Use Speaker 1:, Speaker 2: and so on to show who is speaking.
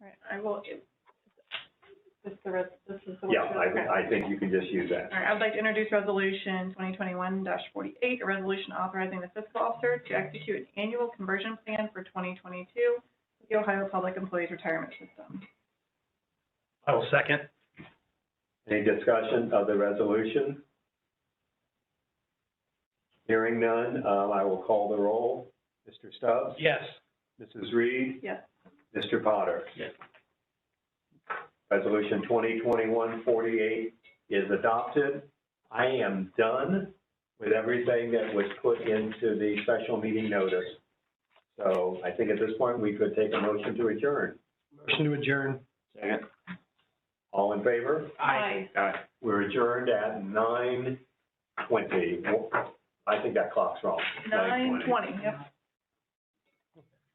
Speaker 1: I will, this the res, this is the. one-
Speaker 2: Yeah, I, I think you can just use that.
Speaker 1: All right, I would like to introduce resolution twenty twenty-one forty-eight, a resolution authorizing the fiscal officer to execute an annual conversion plan for twenty twenty-two, the Ohio Public Employees Retirement System.
Speaker 3: I will second.
Speaker 2: Any discussion of the resolution? Hearing none, um, I will call the roll. Mr. Stubbs?
Speaker 3: Yes.
Speaker 2: Mrs. Reed?
Speaker 1: Yes.
Speaker 2: Mr. Potter?
Speaker 3: Yes.
Speaker 2: Resolution 2021-48 is adopted. I am done with everything that was put into the special meeting notice. So I think at this point, we could take a motion to adjourn.
Speaker 3: Motion to adjourn.
Speaker 2: Second. All in favor? Aye. We're adjourned at nine twenty. I think that clock's wrong.
Speaker 1: Nine twenty, yep.